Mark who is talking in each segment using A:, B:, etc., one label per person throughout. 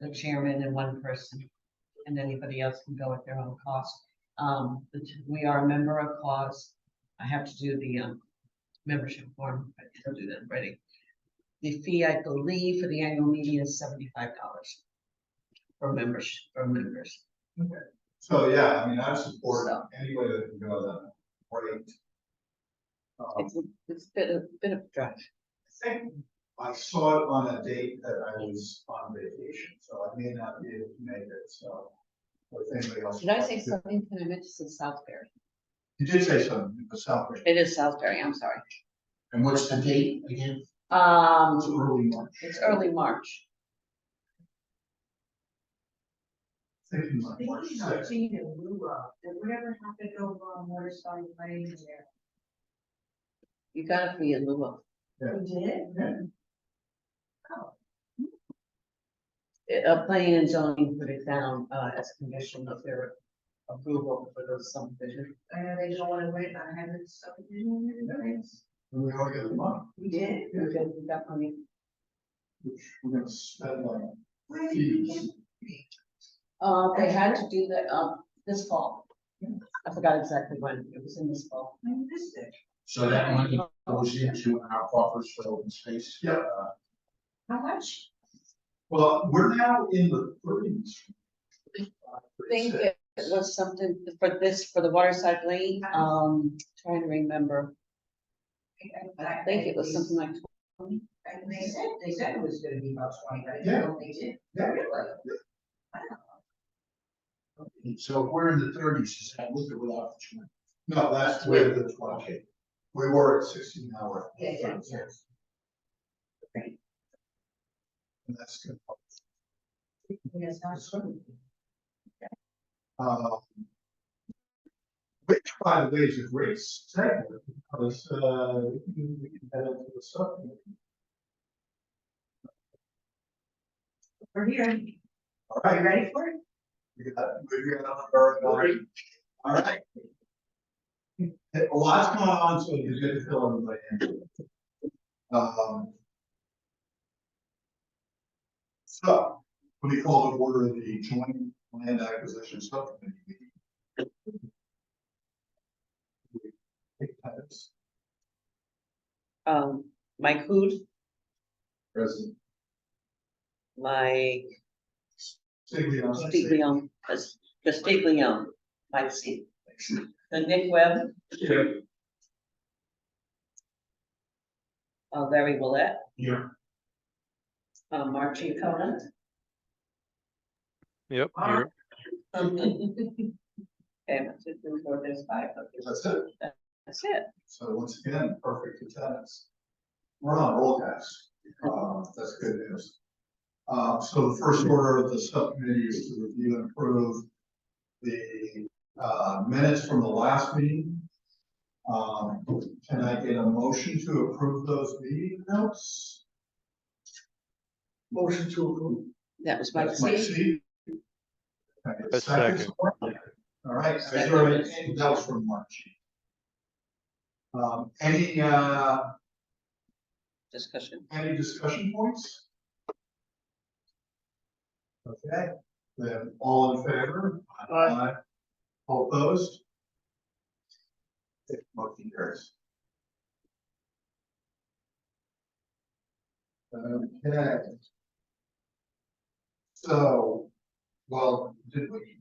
A: the chairman and one person. And anybody else can go at their own cost. Um, but we are a member of cause. I have to do the, um, membership form, but I'll do that in writing. The fee, I believe, for the annual meeting is seventy-five dollars. For members, for members.
B: So, yeah, I mean, I support
A: So.
B: any way that can go that rate. Um,
A: It's, it's been a bit of drive.
B: I think I saw it on a date that I was on vacation, so I may not be able to make it, so. With anybody else.
C: Did I say something? Can I meant to say Southbury?
B: You did say something, it was Southbridge.
C: It is Southbury, I'm sorry.
B: And what's the date again? It's
C: Um,
B: early March.
C: it's early March.
B: Thinking like March
D: Speaking of
B: sixth.
D: Gina Lua, did whatever happened over on Waterside Lane there?
C: You got it for your Lua.
D: We did?
B: Yeah.
A: Uh, Oh. planning and zoning put it down, uh, as a condition of their approval for those subdivision.
D: I know they don't wanna wait, I haven't subdivision in the plans.
B: And we all get a month,
D: We did?
A: You did that for me.
B: which we're gonna spend like
D: Where did you
B: fees.
D: get?
A: Uh, they had to do that, uh,
C: um,
A: this fall. I forgot exactly when, it was in this fall.
D: I missed it.
E: So that money goes into our coffers for open space.
B: Yeah.
E: Uh,
D: How much?
B: Well, we're now in the thirties.
C: I think it was something for this, for the Waterside Lane, um, trying to remember. I think it was something like,
D: And they said, they said it was gonna be about twenty, I
B: Yeah.
D: didn't know they did.
B: Yeah.
D: Really?
E: So if we're in the thirties, is that with or without the trim?
B: No, that's with the twenty. We were at sixteen hour.
D: Yeah, yeah, yeah.
B: And that's good.
D: Yes, that's true.
B: Uh, Which, by the way, is a great segue, because, uh, we can head into the subject.
D: We're here. Are
B: All
D: you
B: right,
D: ready for it?
B: we got, we got a number of nine. All right. A lot's going on, so it's good to fill everybody in. Um. So, let me call to order the joint land acquisition subcommittee meeting. We Take that
C: um, Mike Hood,
B: President.
C: like
B: Stiglione.
C: Steve Leon, that's- the Steve Leon, Mike C. The Nick Webb,
B: Here.
C: uh, Larry Willett,
B: Here.
C: uh, Mark Giacomo.
F: Yep,
D: Wow.
F: you're-
C: And there's five of you.
B: That's it.
C: That's it.
B: So once again, perfect attendance. We're on roll cast. Uh, that's good news. Uh, so the first order of the subcommittee is to review and approve the, uh, minutes from the last meeting. Um, can I get a motion to approve those meeting notes? Motion to approve.
C: That was my
B: That's my seat. Can I get a
F: A
B: second?
F: second.
B: All right, is there anything else from March? Um, any, uh,
C: discussion.
B: any discussion points? Okay, then all in favor? Aye. All opposed? If motion carries. Okay. So, well, did we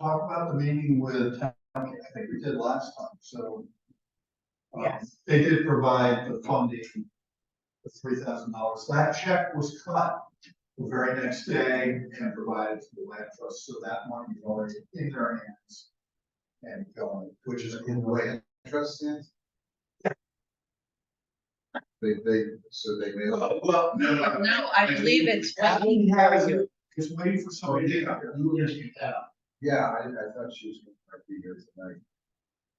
B: talk about the meeting with, town- I think we did last time, so. um,
D: Yes.
B: They did provide the funding the three thousand dollars. That check was cut the very next day and provided to the land trust, so that money is already in their hands. And going, which is in the way.
E: Trust stands? They, they, so they made.
B: Well, well, no, no.
C: No, I believe it's what
B: Abby has it, is waiting for somebody to come.
E: You were gonna get that. Yeah, I, I thought she was gonna be here tonight.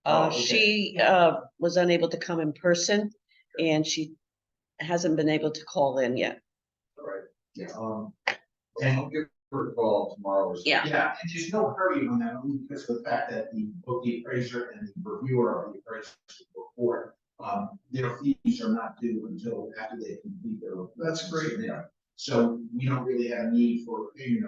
C: Uh,
E: okay.
C: she, uh, was unable to come in person and she hasn't been able to call in yet.
E: Right. Yeah. Um, and I'll give her a call tomorrow. or something.
C: Yeah.
G: Yeah, and there's no hurry on that, only because of the fact that the, both the appraiser and the reviewer of the appraisal report, um, their fees are not due until after they complete their.
B: That's great.
G: Yeah.
B: So we don't really have a need for a payment